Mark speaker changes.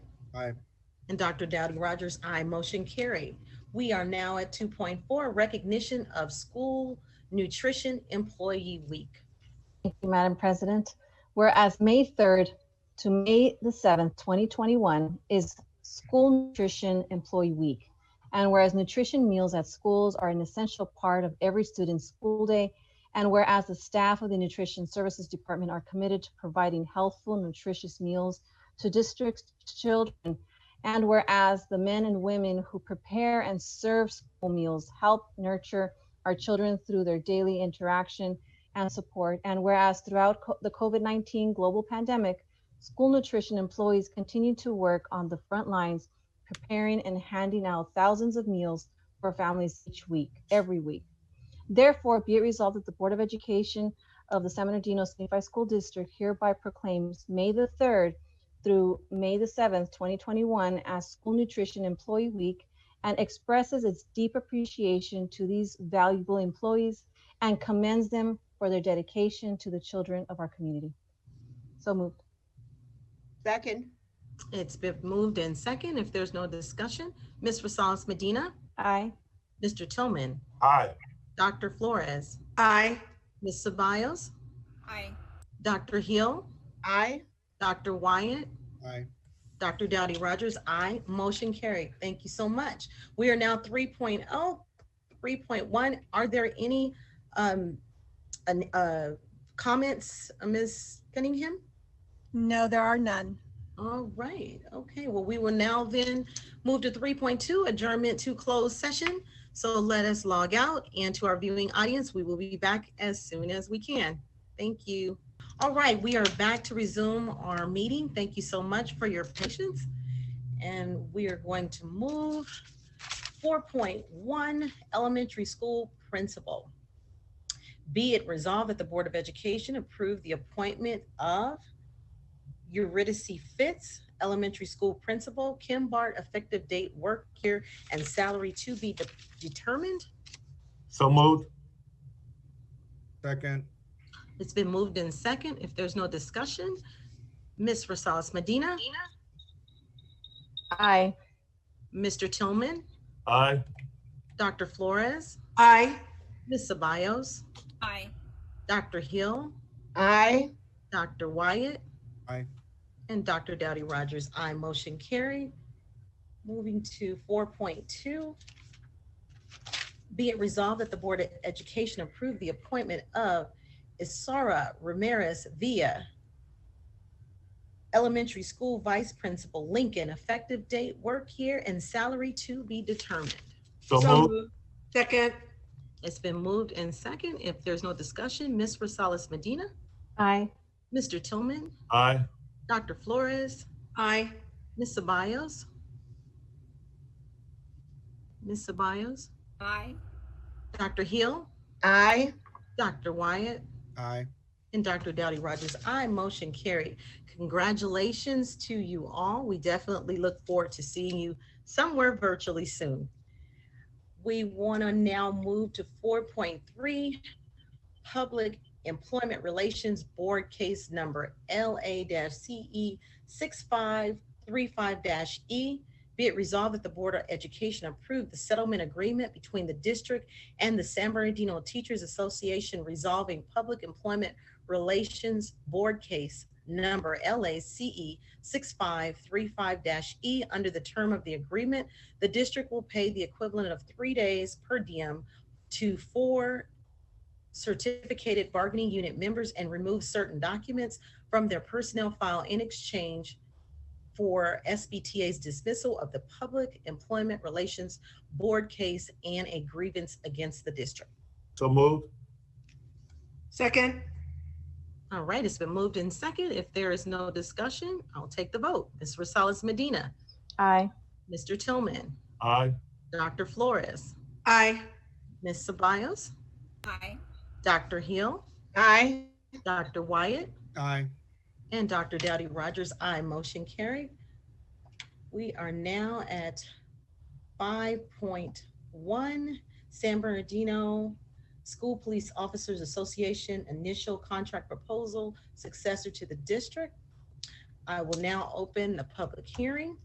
Speaker 1: Aye.
Speaker 2: And Dr. Dowdy Rogers, aye. Motion carried. We are now at two point four, recognition of School Nutrition Employee Week.
Speaker 3: Thank you, Madam President. Whereas May 3rd to May the 7th, 2021 is School Nutrition Employee Week. And whereas nutrition meals at schools are an essential part of every student's school day, and whereas the staff of the Nutrition Services Department are committed to providing healthful, nutritious meals to districts' children, and whereas the men and women who prepare and serve school meals help nurture our children through their daily interaction and support. And whereas throughout co- the COVID 19 global pandemic, school nutrition employees continue to work on the front lines, preparing and handing out thousands of meals for families each week, every week. Therefore, be it resolved that the Board of Education of the San Bernardino Unified School District hereby proclaims May the 3rd through May the 7th, 2021 as School Nutrition Employee Week and expresses its deep appreciation to these valuable employees and commends them for their dedication to the children of our community. So moved.
Speaker 4: Second.
Speaker 2: It's been moved and second. If there's no discussion, Ms. Rosales Medina,
Speaker 3: Aye.
Speaker 2: Mr. Tillman,
Speaker 1: Aye.
Speaker 2: Dr. Flores,
Speaker 4: Aye.
Speaker 2: Ms. Ceballos,
Speaker 5: Aye.
Speaker 2: Dr. Hill,
Speaker 4: Aye.
Speaker 2: Dr. Wyatt,
Speaker 1: Aye.
Speaker 2: Dr. Dowdy Rogers, aye. Motion carried. Thank you so much. We are now oh, 3.0, 3.1. Are there any um, an- uh, comments, Ms. Cunningham?
Speaker 5: No, there are none.
Speaker 2: All right, okay, well, we will now then move to three point two, adjournment to closed session. So let us log out and to our viewing audience, we will be back as soon as we can. Thank you. All right, we are back to resume our meeting. Thank you so much for your patience. And we are going to move four point one, elementary school principal. Be it resolved that the Board of Education approve the appointment of Eurydice Fitz, elementary school principal, Kim Bart, effective date, work year, and salary to be de- determined.
Speaker 6: So moved.
Speaker 1: Second.
Speaker 2: It's been moved in second. If there's no discussion, Ms. Rosales Medina,
Speaker 3: Aye.
Speaker 2: Mr. Tillman,
Speaker 6: Aye.
Speaker 2: Dr. Flores,
Speaker 4: Aye.
Speaker 2: Ms. Ceballos,
Speaker 5: Aye.
Speaker 2: Dr. Hill,
Speaker 4: Aye.
Speaker 2: Dr. Wyatt.
Speaker 1: Aye.
Speaker 2: And Dr. Dowdy Rogers, aye. Motion carried. Moving to four point two. Be it resolved that the Board of Education approve the appointment of Isara Ramirez Villa, elementary school vice principal, Lincoln, effective date, work year, and salary to be determined.
Speaker 6: So moved.
Speaker 4: Second.
Speaker 2: It's been moved and second. If there's no discussion, Ms. Rosales Medina,
Speaker 3: Aye.
Speaker 2: Mr. Tillman,
Speaker 6: Aye.
Speaker 2: Dr. Flores,
Speaker 4: Aye.
Speaker 2: Ms. Ceballos? Ms. Ceballos?
Speaker 5: Aye.
Speaker 2: Dr. Hill?
Speaker 4: Aye.
Speaker 2: Dr. Wyatt?
Speaker 1: Aye.
Speaker 2: And Dr. Dowdy Rogers, I motion carried. Congratulations to you all. We definitely look forward to seeing you somewhere virtually soon. We want to now move to four point three, Public Employment Relations Board Case Number LA CE E six five three five E. Be it resolved that the Board of Education approved the settlement agreement between the district and the San Bernardino Teachers Association resolving public employment Relations Board Case Number LACE 6535-E. E. Under the term of the agreement, the district will pay the equivalent of three days per diem to four certificated bargaining unit members and remove certain documents from their personnel file in exchange for SBTA's dismissal of the Public Employment Relations Board case and a grievance against the district.
Speaker 6: So moved.
Speaker 4: Second.
Speaker 2: All right, it's been moved in second. If there is no discussion, I'll take the vote. Ms. Rosales Medina,
Speaker 3: Aye.
Speaker 2: Mr. Tillman,
Speaker 6: Aye.
Speaker 2: Dr. Flores,
Speaker 4: Aye.
Speaker 2: Ms. Ceballos,
Speaker 5: Aye.
Speaker 2: Dr. Hill,
Speaker 4: Aye.
Speaker 2: Dr. Wyatt,
Speaker 1: Aye.
Speaker 2: and Dr. Dowdy Rogers, aye. Motion carried. We are now at five point one, San Bernardino School Police Officers Association Initial Contract Proposal Successor to the District. I will now open the public hearing.